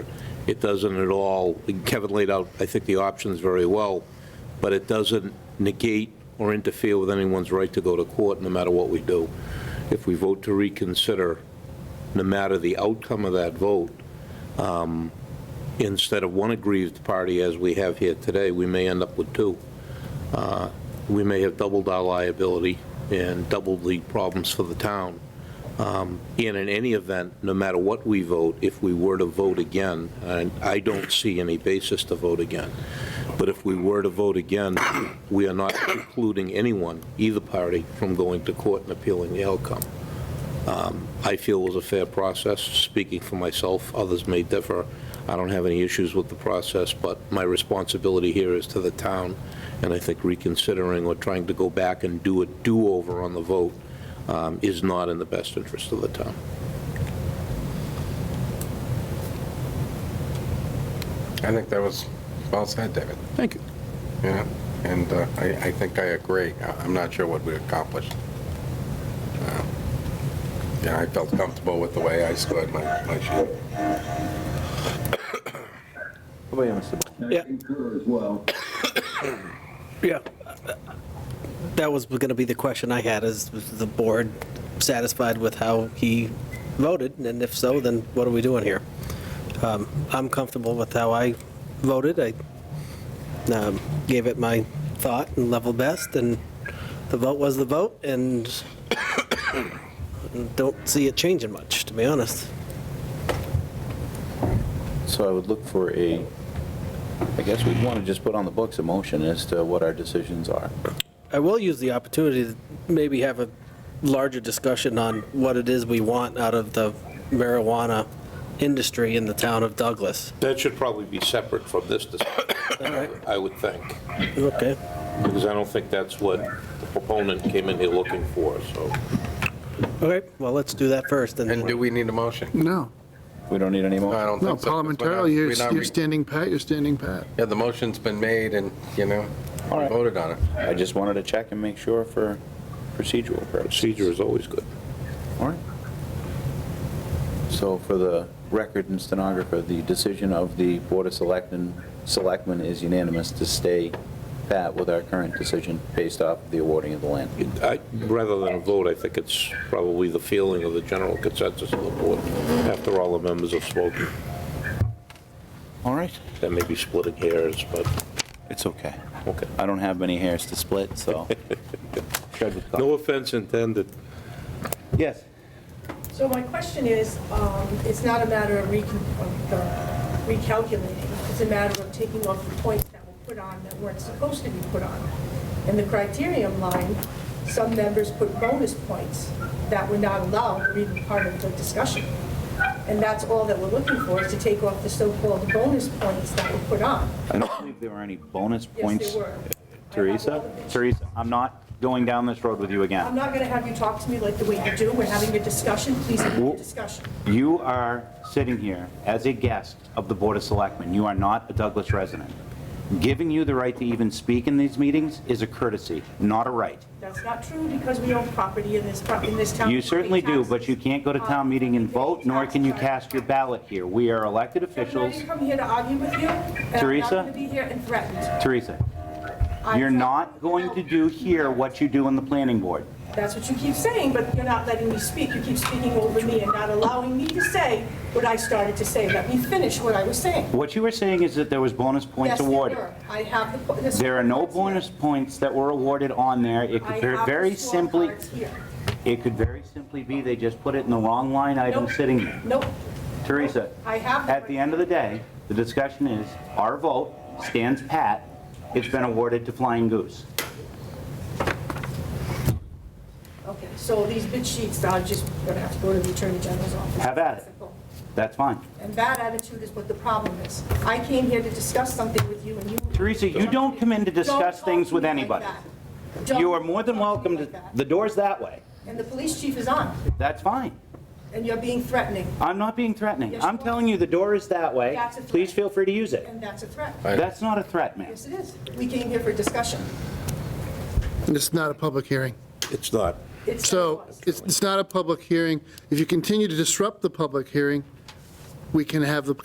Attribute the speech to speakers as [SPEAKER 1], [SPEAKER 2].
[SPEAKER 1] It doesn't at all, Kevin laid out, I think, the options very well, but it doesn't negate or interfere with anyone's right to go to court, no matter what we do. If we vote to reconsider, no matter the outcome of that vote, um, instead of one aggrieved party as we have here today, we may end up with two. Uh, We may have doubled our liability and doubled the problems for the town. Um, And in any event, no matter what we vote, if we were to vote again, and I don't see any basis to vote again, but if we were to vote again, we are not precluding anyone, either party, from going to court and appealing the outcome. Um, I feel it was a fair process, speaking for myself, others may differ. I don't have any issues with the process, but my responsibility here is to the town, and I think reconsidering or trying to go back and do a do-over on the vote um, is not in the best interest of the town.
[SPEAKER 2] I think that was well said, David,
[SPEAKER 1] Thank you.
[SPEAKER 2] you know? And uh, I, I think I agree. I- I'm not sure what we accomplished. Um, Yeah, I felt comfortable with the way I scored my, my sheet.
[SPEAKER 3] How about you, Mr. Bo-
[SPEAKER 4] Yeah.
[SPEAKER 5] I concur as well.
[SPEAKER 4] Yeah. That was going to be the question I had, is the board satisfied with how he voted? And if so, then what are we doing here? Um, I'm comfortable with how I voted. I um, gave it my thought and level best, and the vote was the vote, and don't see it changing much, to be honest.
[SPEAKER 3] So I would look for a, I guess we'd want to just put on the books a motion as to what our decisions are.
[SPEAKER 4] I will use the opportunity to maybe have a larger discussion on what it is we want out of the marijuana industry in the town of Douglas.
[SPEAKER 1] That should probably be separate from this discussion, I would think,
[SPEAKER 4] Okay,
[SPEAKER 1] because I don't think that's what the proponent came in here looking for, so.
[SPEAKER 4] okay, well, let's do that first,
[SPEAKER 2] And do
[SPEAKER 4] and
[SPEAKER 2] we need a motion?
[SPEAKER 6] No,
[SPEAKER 3] We don't need any
[SPEAKER 2] No, I
[SPEAKER 3] more.
[SPEAKER 2] don't
[SPEAKER 6] no,
[SPEAKER 2] think so. 'cause we're not-
[SPEAKER 6] parliamentarily, you're
[SPEAKER 2] we're not
[SPEAKER 6] you're
[SPEAKER 2] re-
[SPEAKER 6] standing pat, you're standing pat.
[SPEAKER 2] Yeah, the motion's been made and, you know,
[SPEAKER 3] All right.
[SPEAKER 2] voted on it.
[SPEAKER 3] I just wanted to check and make sure for procedural purposes.
[SPEAKER 1] Procedure is always good.
[SPEAKER 3] All right. So for the record and stenographer, the decision of the Board of Selectmen, Selectmen is unanimous to stay pat with our current decision based off the awarding of the land.
[SPEAKER 1] I- Rather than a vote, I think it's probably the feeling of the general consensus of the board after all the members have spoken.
[SPEAKER 3] All right.
[SPEAKER 1] That may be splitting hairs, but,
[SPEAKER 3] It's okay.
[SPEAKER 1] okay.
[SPEAKER 3] I don't have many hairs to split, so.
[SPEAKER 1] No offense intended.
[SPEAKER 3] Yes.
[SPEAKER 7] So my question is, um, it's not a matter of recon- of, uh, recalculating, it's a matter of taking off the points that were put on that weren't supposed to be put on. In the criterion line, some members put bonus points that were not allowed or even part of the discussion. And that's all that we're looking for, is to take off the so-called bonus points that were put on.
[SPEAKER 3] I don't believe there were any bonus
[SPEAKER 7] Yes,
[SPEAKER 3] points.
[SPEAKER 7] they were.
[SPEAKER 3] Teresa, Teresa, I'm not going down this road with you
[SPEAKER 7] I'm
[SPEAKER 3] again.
[SPEAKER 7] not going to have you talk to me like the way you do, we're having a discussion, please have a discussion.
[SPEAKER 3] You are sitting here as a guest of the Board of Selectmen. You are not a Douglas resident. Giving you the right to even speak in these meetings is a courtesy, not a right.
[SPEAKER 7] That's not true because we own property in this, pro- in this town. Um,
[SPEAKER 3] You certainly do, but you can't go to town meeting and vote, nor can you cast your ballot here. We are elected
[SPEAKER 7] I'm not
[SPEAKER 3] officials.
[SPEAKER 7] even coming here to argue with you. and
[SPEAKER 3] Teresa?
[SPEAKER 7] I'm not going to be here and threatened.
[SPEAKER 3] Teresa,
[SPEAKER 7] I'm
[SPEAKER 3] you're
[SPEAKER 7] threatened.
[SPEAKER 3] not going to do here what you do on the planning board.
[SPEAKER 7] That's what you keep saying, but you're not letting me speak. You keep speaking over me and not allowing me to say what I started to say. Let me finish what I was saying.
[SPEAKER 3] What you were saying is that there was bonus
[SPEAKER 7] Yes,
[SPEAKER 3] points
[SPEAKER 7] there
[SPEAKER 3] awarded.
[SPEAKER 7] were. I have the. po- the
[SPEAKER 3] There are no
[SPEAKER 7] scorecards here.
[SPEAKER 3] bonus points that were awarded on there. It
[SPEAKER 7] I
[SPEAKER 3] could
[SPEAKER 7] have
[SPEAKER 3] ver-
[SPEAKER 7] the
[SPEAKER 3] very simply,
[SPEAKER 7] scorecards here.
[SPEAKER 3] it could very simply be they just put it in the wrong line item
[SPEAKER 7] Nope.
[SPEAKER 3] sitting there.
[SPEAKER 7] Nope.
[SPEAKER 3] Teresa,
[SPEAKER 7] I have
[SPEAKER 3] at the end of the day, the discussion is, our vote stands pat. It's been awarded to Flying Goose.
[SPEAKER 7] Okay, so these bid sheets, I'm just going to have to go to the Attorney General's office.
[SPEAKER 3] Have at it.
[SPEAKER 7] Simple.
[SPEAKER 3] That's fine.
[SPEAKER 7] And that attitude is what the problem is. I came here to discuss something with you and you.
[SPEAKER 3] Teresa, you don't come in to discuss
[SPEAKER 7] Don't
[SPEAKER 3] things
[SPEAKER 7] talk to
[SPEAKER 3] with
[SPEAKER 7] me like
[SPEAKER 3] anybody.
[SPEAKER 7] that. Don't
[SPEAKER 3] You are more than
[SPEAKER 7] talk me
[SPEAKER 3] welcome to,
[SPEAKER 7] like
[SPEAKER 3] the
[SPEAKER 7] that.
[SPEAKER 3] door's that way.
[SPEAKER 7] And the police chief is on,
[SPEAKER 3] That's fine.
[SPEAKER 7] and you're being threatening,
[SPEAKER 3] I'm not being threatening.
[SPEAKER 7] Yes, you
[SPEAKER 3] I'm
[SPEAKER 7] are.
[SPEAKER 3] telling you, the door is that way.
[SPEAKER 7] That's a threat.
[SPEAKER 3] Please feel free to use it.
[SPEAKER 7] and that's a threat.
[SPEAKER 3] That's not a threat, ma'am.
[SPEAKER 7] Yes, it is. We came here for discussion.
[SPEAKER 6] It's not a public hearing.
[SPEAKER 1] It's not.
[SPEAKER 7] It's-
[SPEAKER 6] So it's, it's not a public hearing. If you continue to disrupt the public hearing, we can have the